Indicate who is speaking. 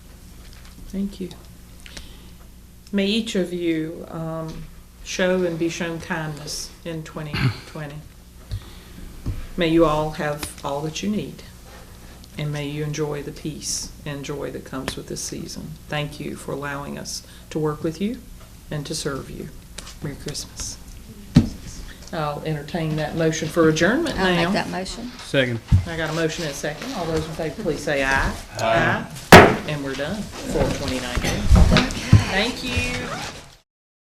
Speaker 1: Thank you. May each of you um, show and be shown kindness in 2020. May you all have all that you need, and may you enjoy the peace and joy that comes with this season. Thank you for allowing us to work with you and to serve you. Merry Christmas. I'll entertain that motion for adjournment now.
Speaker 2: I'll make that motion.
Speaker 3: Second.
Speaker 1: I got a motion and a second. All those in favor, please say aye. Aye. And we're done for 2019. Thank you.